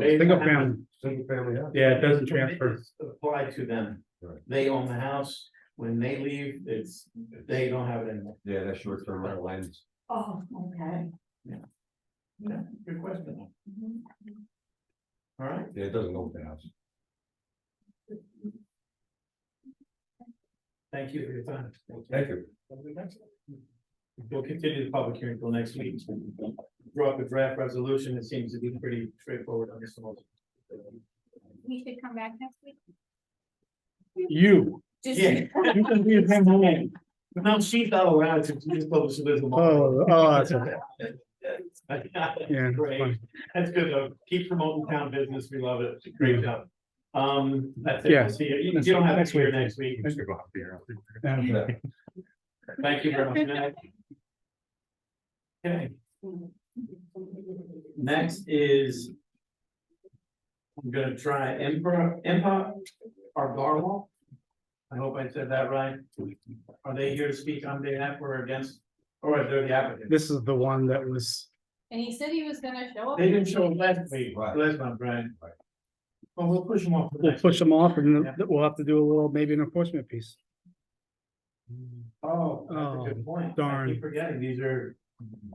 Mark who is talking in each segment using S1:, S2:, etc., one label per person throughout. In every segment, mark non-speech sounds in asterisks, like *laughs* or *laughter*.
S1: Single family.
S2: Single family, yeah.
S1: Yeah, it doesn't transfer.
S3: Apply to them.
S2: Right.
S3: They own the house. When they leave, it's, they don't have it anymore.
S2: Yeah, that's short term rental lands.
S4: Oh, okay.
S3: Yeah, good question.
S4: Mhm.
S3: All right.
S2: Yeah, it doesn't own the house.
S3: Thank you for your time.
S2: Thank you.
S3: We'll continue the public hearing until next week. Draw up a draft resolution. It seems to be pretty straightforward on this one.
S4: We should come back next week.
S1: You,
S4: Just-
S3: Yeah.
S1: you can be a member.
S3: *laughs* No, she's not allowed to use public solicitor.
S1: Oh, oh,
S3: *laughs*
S1: that's okay. Yeah, that's
S3: Great.
S1: funny.
S3: That's good though. Keep promoting town business. We love it. Great job. Um, Mm-hmm. that's it.
S1: Yeah.
S3: We'll See you. You you don't have to be here next week.
S1: Yeah.
S3: Thank you very much. Good night. Okay. Next is. I'm gonna try Emperor, Empire, or Garwal. I hope I said that right. Are they here to speak on behalf or against, or are they the applicant?
S1: This is the one that was,
S4: And he said he was gonna show up.
S3: They didn't show up last week,
S2: Right.
S3: last month, Brian.
S2: Right.
S3: Well, we'll push them off. for
S1: we'll
S3: next
S1: push them off and
S3: Yeah.
S1: we'll have to do a little, maybe an enforcement piece.
S3: Oh, that's a good point. I
S1: darn.
S3: keep Forgetting, these are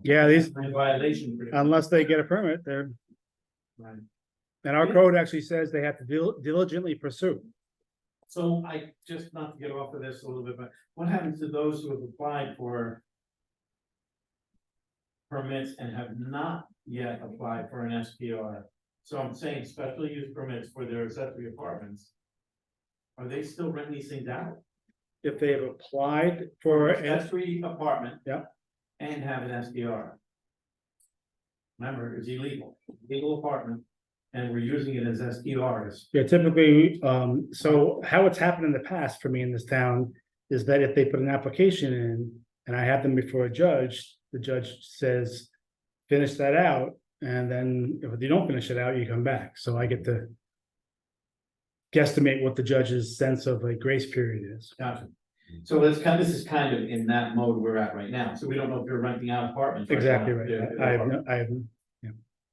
S1: Yeah, these, Um,
S3: in violation. for the-
S1: unless they get a permit, they're,
S3: Right.
S1: and our code actually says they have to dil- diligently pursue.
S3: So I, just not to get off of this a little bit, but what happens to those who have applied for? Permits and have not yet applied for an SPR? So I'm saying special use permits for their accessory apartments. Are they still renting these things out?
S1: If they have applied for, a-
S3: Accessory apartment.
S1: Yeah.
S3: And have an SPR. Remember, it's illegal, legal apartment, and we're using it as SPRs.
S1: yeah, typically, um, so how it's happened in the past for me in this town is that if they put an application in and I have them before a judge, the judge says, finish that out, and then if you don't finish it out, you come back. So I get to guesstimate what the judge's sense of a grace period is.
S3: Gotcha. So that's kind, this is kind of in that mode we're at right now, so we don't know if you're renting out apartments.
S1: Exactly
S3: now.
S1: right.
S3: They're-
S1: I I
S3: they're
S1: have,
S3: apartments.
S1: no- I have,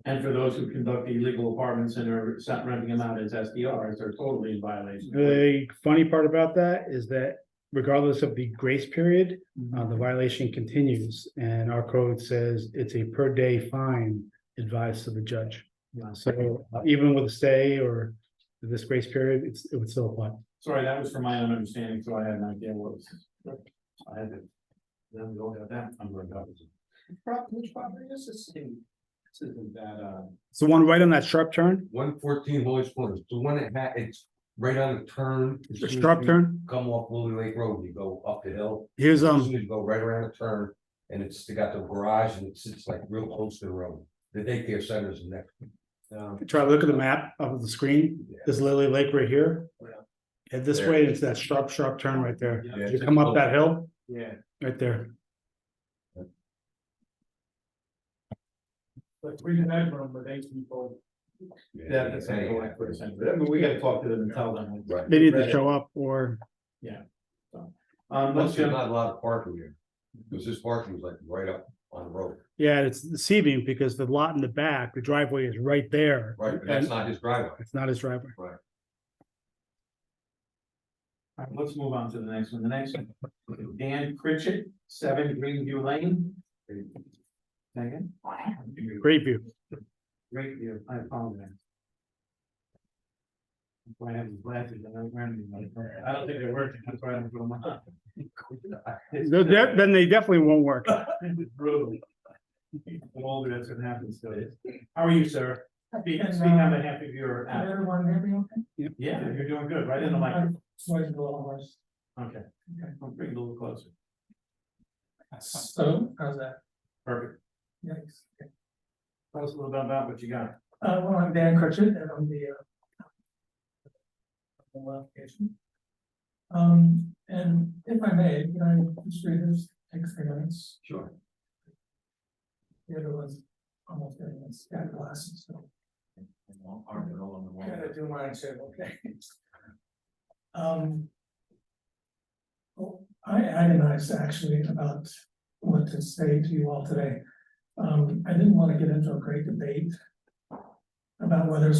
S3: And for those who conduct illegal apartments and are not renting them out as SDRs, they're totally in violation.
S1: the funny part about that is that regardless of the grace period, uh,
S3: Mm-hmm.
S1: the violation continues. And our code says it's a per day fine advised to the judge.
S3: Yeah.
S1: So uh, even with a stay or this grace period, it's, it would still apply.
S3: Sorry, that was from my own understanding, so I had an idea what was. I had to. Then we all got that, I'm going Which property is this? This isn't that, uh.
S1: It's the one right on that sharp turn,
S2: One fourteen Holy Corners, the one that had, it's right on the turn. as
S1: the
S2: soon as
S1: sharp
S2: you
S1: turn.
S2: Come off Lily Lake Road, you go up the hill,
S1: Here's,
S2: as
S1: um,
S2: soon as you go right around the turn, and it's they got the garage and it sits like real close to the road. The daycare center is next. Um,
S1: try to look at the map of the screen. There's Lily Lake right here.
S3: Yeah.
S1: And this
S2: There.
S1: way, it's that sharp, sharp turn right there.
S3: Yeah.
S2: yeah,
S1: You come up that hill.
S3: Yeah.
S1: Right there.
S3: But we didn't have one with eight people. Yeah, that's not going for a
S2: Yeah.
S3: second, but I mean, we gotta talk to them and tell them.
S2: Right.
S1: They need to
S3: Right.
S1: show up or,
S3: Um, let's
S2: Plus,
S3: go.
S2: there's not a lot of parking here, because this parking is like right up on the road,
S1: yeah, it's deceiving because the lot in the back, the driveway is right there.
S2: right, but that's
S1: And
S2: not his driveway.
S1: it's not his driveway.
S3: All right, let's move on to the next one. The next one, Dan Pritchett, seven Greenview Lane. Second.
S1: Great view.
S3: Great view, I apologize. That's why I have these glasses, I don't wear them. I don't think they're working, that's why I don't put them on.
S1: They're de- Then they definitely won't work.
S3: *laughs* It's brutal. The older that's gonna happen, so How are you, sir? Speak, speak on behalf of your. app.
S5: Everyone, everyone, Uh,
S3: Yeah, you're doing good, right in the mic.
S5: Uh-huh. sorry, a little worse.
S3: Okay, I'll bring it a little closer.
S5: So, how's that?
S3: Perfect.
S5: Yikes.
S3: Tell us a little bit about what you got.
S5: Uh, well, I'm Dan Crutchet and I'm the, uh, the application. Um, and if I may, can I just read this, take three minutes?
S2: Sure.
S5: The other one's almost getting its got glasses, so.
S3: Arm it all on the wall.
S5: Gotta do mine too, okay. Um. oh, I agonized actually about what to say to you all today. Um, I didn't want to get into a great debate. About whether